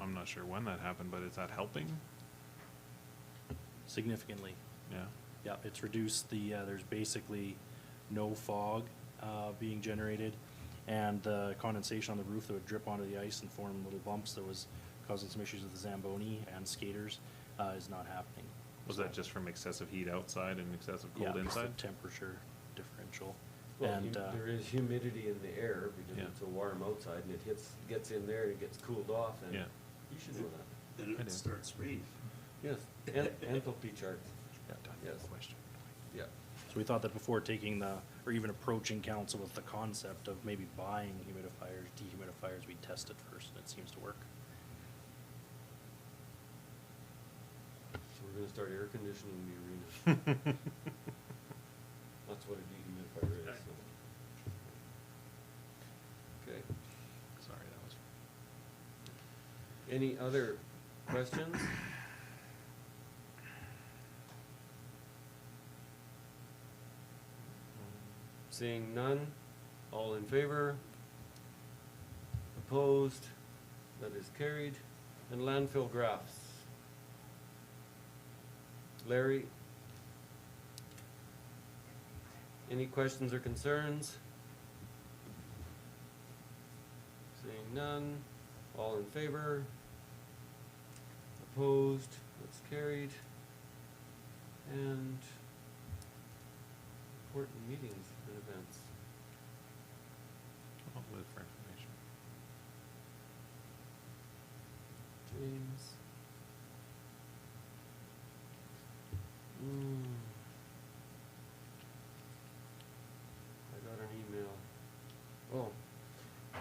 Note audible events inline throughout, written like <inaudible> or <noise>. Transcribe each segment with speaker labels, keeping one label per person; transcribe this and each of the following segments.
Speaker 1: I'm not sure when that happened, but is that helping?
Speaker 2: significantly.
Speaker 1: Yeah.
Speaker 2: Yeah, it's reduced the, uh, there's basically no fog, uh, being generated, and the condensation on the roof that would drip onto the ice and form little bumps that was causing some issues with the Zamboni and skaters, uh, is not happening.
Speaker 1: Was that just from excessive heat outside and excessive
Speaker 2: Yeah,
Speaker 1: cold
Speaker 2: it's the <laughs>
Speaker 1: inside?
Speaker 2: Temperature differential,
Speaker 3: Well,
Speaker 2: and,
Speaker 3: hu-
Speaker 2: uh,
Speaker 3: there is humidity in the air
Speaker 1: Yeah.
Speaker 3: because it's so warm outside and it hits, gets in there and it gets cooled off and
Speaker 1: Yeah.
Speaker 3: you should know that.
Speaker 4: Then
Speaker 1: I do.
Speaker 4: it starts raining.
Speaker 3: Yes, en- enthalpy charts, Yes. yeah.
Speaker 2: so we thought that before taking the, or even approaching council with the concept of maybe buying humidifiers, dehumidifiers, we test it first, and it seems to work.
Speaker 3: So we're gonna start air conditioning the
Speaker 1: Yeah.
Speaker 3: arena. That's what a dehumidifier is, so. Okay,
Speaker 1: Sorry, that was.
Speaker 3: any other questions? Seeing none, all in favor? Opposed? That is carried. And landfill graphs. Larry? Any questions or concerns? Seeing none, all in favor? Opposed? That's carried. And important meetings and events.
Speaker 1: I'll live for information.
Speaker 3: James. Mm. I got an email. Oh.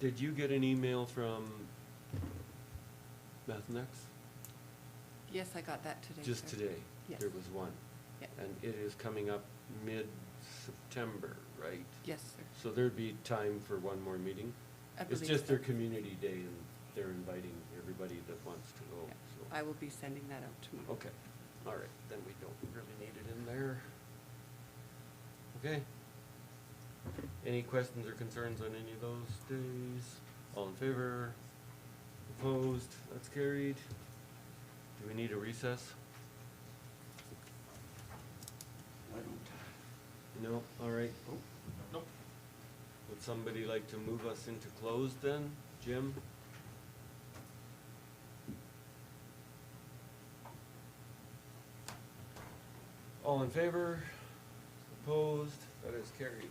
Speaker 3: Did you get an email from Mathnex?
Speaker 5: Yes, I got that today.
Speaker 3: Just
Speaker 5: sir.
Speaker 3: today?
Speaker 5: Yes.
Speaker 3: There was one.
Speaker 5: Yeah.
Speaker 3: And it is coming up mid-September, right?
Speaker 5: Yes, sir.
Speaker 3: So there'd be time for one more meeting?
Speaker 5: I
Speaker 3: It's
Speaker 5: believe
Speaker 3: just their
Speaker 5: so.
Speaker 3: community day and they're inviting everybody that wants to go,
Speaker 5: Yeah.
Speaker 3: so.
Speaker 5: I will be sending that out tomorrow.
Speaker 3: Okay, all right, then we don't really need it in there. Okay. Any questions or concerns on any of those days? All in favor? Opposed? That's carried. Do we need a recess?
Speaker 4: I don't,
Speaker 3: No, all right.
Speaker 4: oh,
Speaker 3: Would somebody like to move us into closed then? Jim? All in favor? Opposed? That is carried.